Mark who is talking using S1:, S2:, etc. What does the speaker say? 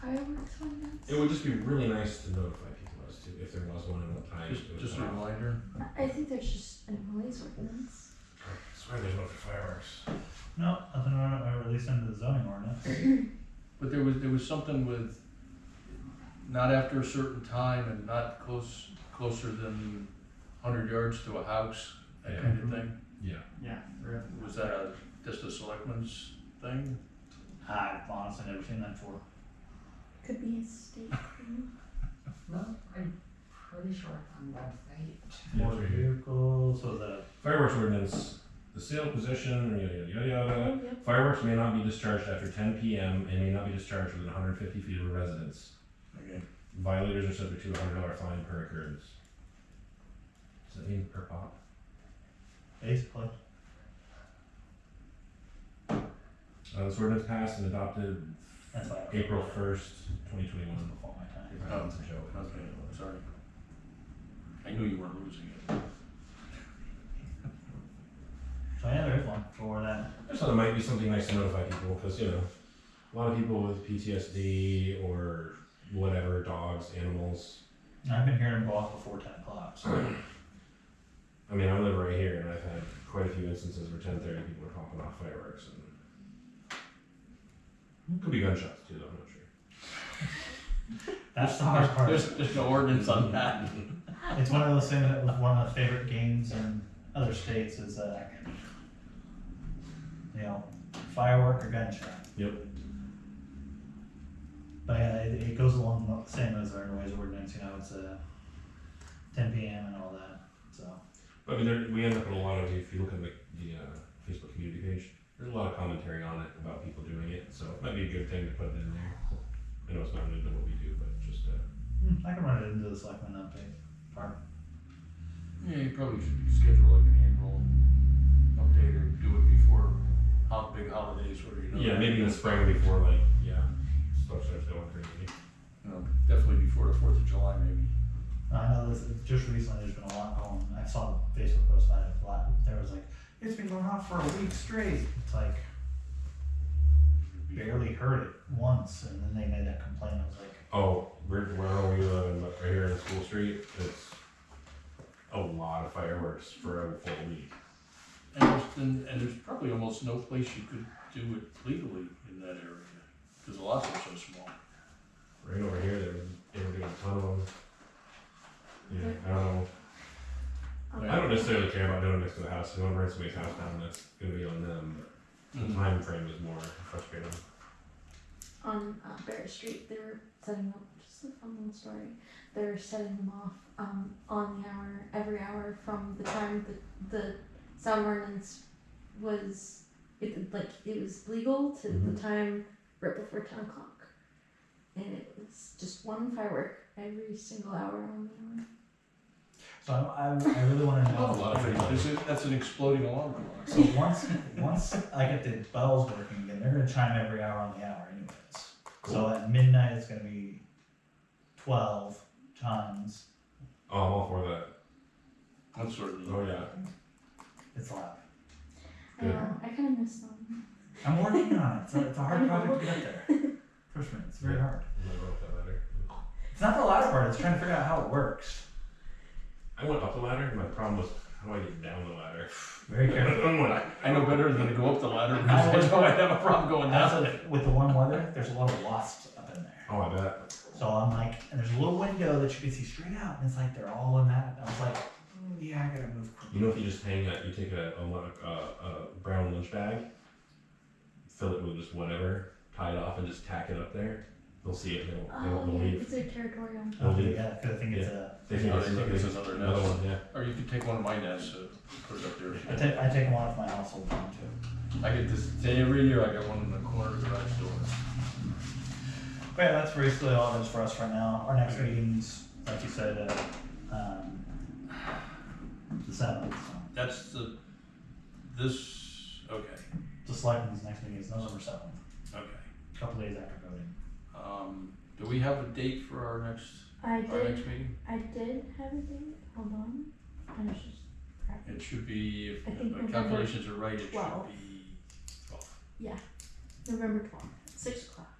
S1: fireworks one
S2: It would just be really nice to notify people as to if there was one and what time.
S3: Just,
S2: it was
S3: just a
S2: at.
S3: reminder.
S1: I think there's just a noise ordinance.
S2: I swear there's one for fireworks.
S4: No, nothing on it, or at least under the zoning ordinance.
S3: But there was, there was something with not after a certain time and not close, closer than hundred yards to a house, that kind
S4: Mm-hmm.
S3: of thing.
S2: Yeah.
S4: Yeah.
S3: Was that a, just a selectman's thing?
S4: I've honestly never seen that before.
S1: Could be a state thing.
S5: No, I'm pretty sure it's on website.
S2: Yeah,
S4: Motor
S2: it's right here.
S4: vehicle, so the,
S2: Fireworks ordinance, the sale, possession, yada, yada, yada, yada.
S1: Oh, yep.
S2: Fireworks may not be discharged after ten PM and may not be discharged within hundred fifty feet of a residence.
S3: Okay.
S2: Violators are subject to a hundred dollar fine per occurrence. Does that mean per pop?
S4: basically,
S2: Uh, this ordinance passed and adopted
S4: that's why. I was-
S2: April first, twenty
S4: It was
S2: twenty-one.
S4: before my time.
S3: Oh, Okay, sorry. I knew you weren't losing it.
S4: So yeah, there is one for that.
S2: I just thought it might be something nice to notify people because you know, a lot of people with PTSD or whatever, dogs, animals.
S4: And I've been hearing them go off before ten o'clock, so.
S2: I mean, I live right here, and I've had quite a few instances where ten thirty people are popping off fireworks, and could be gunshots too. Though, I'm not sure.
S4: That's the hard part.
S3: There's, there's no ordinance on that.
S4: It's one of those things that was one of the favorite games in other states is, uh, you know, firework or gunshot.
S2: Yep.
S4: But yeah, it, it goes along the same as our noise ordinance, you know, it's, uh, ten PM and all that, so.
S2: But, I mean, there, we end up in a lot of if you look at the, the uh, Facebook community page, there's a lot of commentary on it about people doing it, so it might be a good thing to put it in there. I know it's not related to what we do, but just uh,
S4: Hmm, I can run it into the selectmen update part.
S3: Yeah, you probably should schedule like an annual update or do it before hot, big holidays where you know.
S2: yeah, maybe in the spring before like yeah, stuff starts going crazy.
S3: You know, Definitely before the Fourth of July, maybe.
S4: I know this, just recently, there's been a lot going, I saw a Facebook post about it a lot, there was like, it's been going on for a week straight, it's like, barely heard it once, and then they made that complaint. I was like,
S2: Oh, where, where are we living? Like, Right here in School Street, it's a lot of fireworks for a full week.
S3: And there's, and, and there's probably almost no place you could do it legally in that area, because the lots are so small.
S2: Right over here, they were, they were doing a ton of them. Yeah, I don't know.
S1: Um,
S2: I don't necessarily care about doing it next to the house. If I burn somebody's house down, that's gonna be on them.
S3: Mm-hmm.
S2: But the time frame is more frustrating.
S1: on uh, Bear Street, they were setting up just a fun little story. They were setting them off um, on the hour, every hour from the time that the sound ordinance was it, like it was legal to
S2: Mhm.
S1: the time right before ten o'clock, and it was just one firework every single hour on the hour.
S4: so I, I, I really want to know.
S2: Not a lot of people.
S3: There's a- That's an exploding alarm clock.
S4: So once, once I get the bells working again, they're gonna chime every hour on the hour, anyways. So
S2: Cool.
S4: at midnight, it's gonna be twelve times.
S2: Oh, I'm all for that.
S3: That's sort of.
S2: Oh, yeah.
S4: It's loud.
S1: I
S2: Yeah.
S1: know. I kind of miss them.
S4: I'm working on it. It's a, it's a hard project to get there. Trust me, it's very hard.
S2: I'm gonna go up that ladder.
S4: It's not the loud part. It's trying to figure out how it works.
S2: I went up the ladder, and my problem was how do I get down the ladder?
S4: Very careful.
S2: I'm like,
S3: I know better than to go up the ladder, because I know I have a problem going down.
S4: Also, with the warm weather, there's a lot of wasps up in there.
S2: oh, I bet.
S4: So I'm like, and there's a little window that you can see straight out, and it's like they're all in that. I was like, "Mm, yeah, I gotta move
S2: You
S4: quick.
S2: know, if you just hang that, you take a, a, lo- a, a brown lunch bag, fill it with just whatever, tie it off, and just tack it up there. They'll see it. They won't, they won't
S1: Oh, yeah,
S2: believe.
S1: it's a territorial.
S2: They'll
S4: Okay,
S2: leave.
S4: Oh, yeah, because I think it's a.
S2: They think
S3: Oh,
S2: it's,
S3: they think
S2: it's
S3: it's another
S2: another
S3: nest.
S2: one. Yeah.
S3: Or you could take one of my nests, uh, put it up
S4: I
S3: there.
S4: take I take them out of my household phone too.
S3: I get this day every year, I got one in the corner of the garage door.
S4: But yeah, that's basically all it is for us right now. Our next meeting's, like you said, uh, um, the seventh. So
S3: That's the, this, okay,
S4: the selectmen's next meeting is November seventh,
S3: okay.
S4: a couple days after voting.
S3: Um, do we have a date for our next,
S1: I
S3: our
S1: did.
S3: next meeting?
S1: I did have a date. Hold on. I was just. crap.
S3: It should be,
S1: I
S3: if
S1: think
S3: my
S1: November
S3: calculations are right, it should
S1: twelve.
S3: be twelve.
S1: November twelfth, six o'clock.